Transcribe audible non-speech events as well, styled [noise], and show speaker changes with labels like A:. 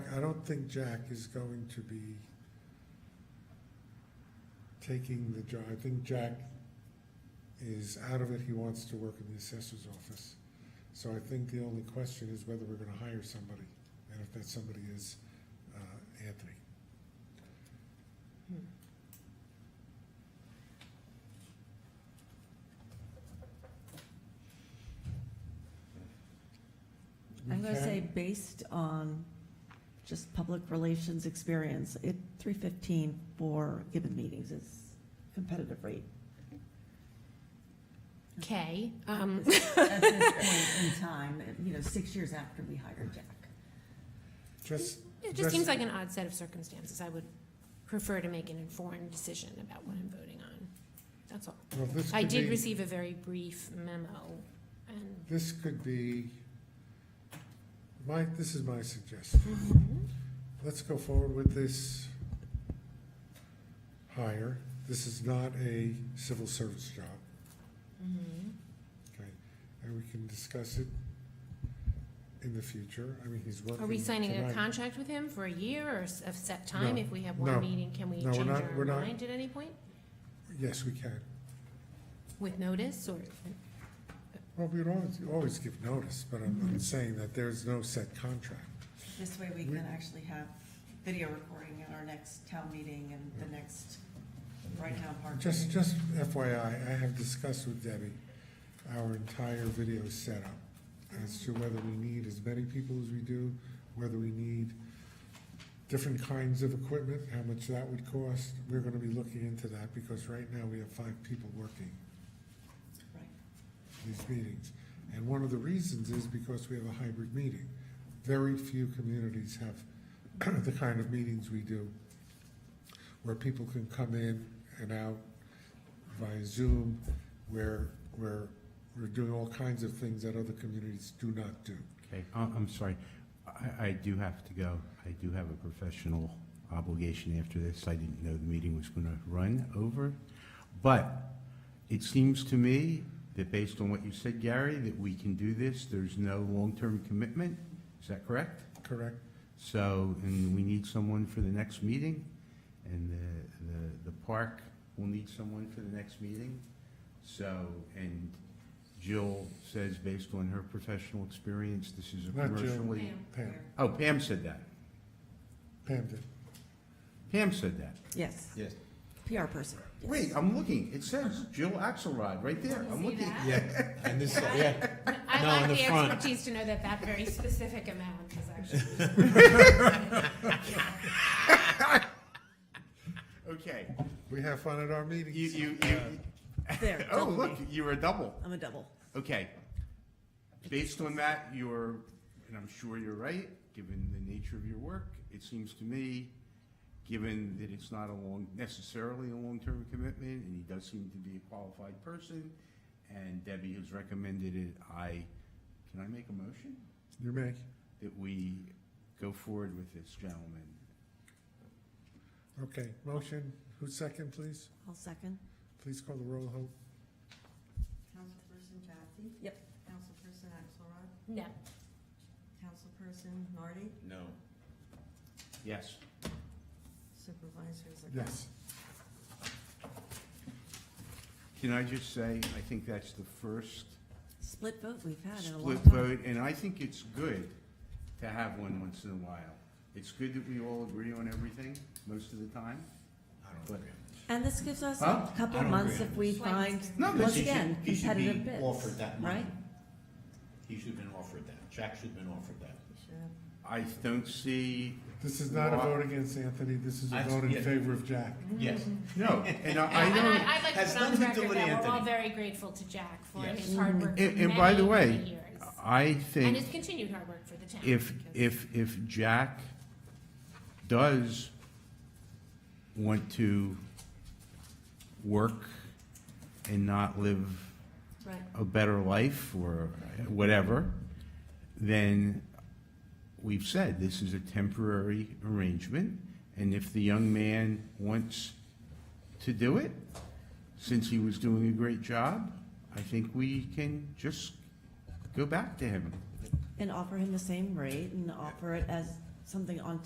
A: I don't think Jack is going to be taking the job. I think Jack is out of it. He wants to work in the assessor's office. So I think the only question is whether we're gonna hire somebody, and if that somebody is, uh, Anthony. We
B: I'm gonna
A: can-
B: say based on just public relations experience, it, three fifteen for given meetings is competitive rate.
C: Okay, um,
B: At this point in time, you know, six years after we hired Jack.
A: Just,
C: it just
A: Just-
C: seems like an odd set of circumstances. I would prefer to make an informed decision about what I'm voting on. That's all.
A: well, this
C: I
A: could
C: did
A: be-
C: receive a very brief memo, and
A: This could be, my, this is my suggestion. Let's go forward with this hire. This is not a civil service job,
C: mm-hmm.
A: okay? And we can discuss it in the future. I mean, he's working
C: are we signing a
A: Mm-hmm. tonight.
C: contract with him for a year or s- a set time?
A: No,
C: If we have
A: no,
C: one meeting, can we
A: no, we're
C: change
A: not-
C: our
A: we're not.
C: mind at any point?
A: Yes, we can.
C: With notice or,
A: Well, we'd always, always give notice, but I'm, I'm saying that there's no set contract.
D: This way we
A: We-
D: can actually have video recording at our next town meeting and the next Bright Town Park.
A: Uh, Just,
D: meeting.
A: just FYI, I have discussed with Debbie our entire video setup as to whether we need as many people as we do, whether we need different kinds of equipment, how much that would cost. We're gonna be looking into that because right now we have five people working
D: Right.
A: these meetings. And one of the reasons is because we have a hybrid meeting. Very few communities have [clears throat] the kind of meetings we do, where people can come in and out via Zoom, where, where we're doing all kinds of things that other communities do not do.
E: Okay, I- I'm sorry. I, I do have to go. I do have a professional obligation after this. I didn't know the meeting was going to run over. But it seems to me that based on what you said, Gary, that we can do this. There's no long-term commitment. Is that correct?
A: Correct?
E: So, and we need someone for the next meeting, and the, the, the park will need someone for the next meeting. So, and Jill says, based on her professional experience, this is a
A: Not Jill.
E: commercially.
C: Pam.
A: Pam,
E: Oh, Pam said that.
A: Pam did.
E: Pam said that.
B: Yes,
E: Yes.
B: PR person. yes.
E: Wait, I'm looking. It says Jill Axelrod right there. I'm
C: See
E: looking.
C: that?
F: Yeah, [laughs] and this, yeah,
C: I
F: No,
C: lack
F: in the
C: the
F: front.
C: expertise to know that that very specific amount is
A: [laughs]
C: actually.
E: Okay.
A: We have fun at our meetings.
E: You, you, you,
B: There,
E: [laughs] oh,
B: double
E: look,
B: me.
E: you were a double.
B: I'm a double.
E: Okay. Based on that, you're, and I'm sure you're right, given the nature of your work, it seems to me, given that it's not a long, necessarily a long-term commitment, and he does seem to be a qualified person, and Debbie has recommended it, I, can I make a motion?
A: You may.
E: That we go forward with this gentleman?
A: Okay, motion, who's second, please?
B: I'll second.
A: Please call the roll, Hope.
D: Councilperson Jaffe?
B: Yep.
D: Councilperson Axelrod?
C: No,
D: Councilperson Nardi?
F: no,
E: Yes.
D: Supervisor Zerko?
A: Yes.
E: Can I just say, I think that's the first
B: Split vote we've had in a long
E: split
B: time.
E: vote, and I think it's good to have one once in a while. It's good that we all agree on everything most of the time.
F: I don't
E: But-
F: agree.
B: And this gives us
E: Huh?
B: a couple
F: I
B: of
F: don't
B: months
F: agree on
B: if we
C: this.
B: find,
E: No, but
B: once
E: he should-
B: again,
F: he should be
B: competitive bids,
F: offered that money.
B: right?
F: He should have been offered that, Jack should have been offered that.
D: We should have-
E: I don't see,
A: This is not a
E: Why-
A: vote against Anthony, this is a
F: I-
A: vote in
F: yeah.
A: favor of Jack.
F: Yes,
B: Mm-hmm.
E: no, and
B: [laughs]
E: I, I
C: and
E: don't,
C: I- I'd like to
F: Has
C: put on the
F: nothing to do
C: record
F: with
C: that we're all
F: Anthony.
C: very grateful to Jack for
F: Yes.
C: his hard work for
E: and, and by the
C: many,
E: way,
C: many years.
E: I
C: And
E: think
C: his continued hard work for the town.
E: if,
C: because-
E: if, if Jack does want to work and not live
C: Right.
E: a better life or whatever, then we've said this is a temporary arrangement. And if the young man wants to do it, since he was doing a great job, I think we can just go back to him.
B: And offer him the same rate and offer it as something on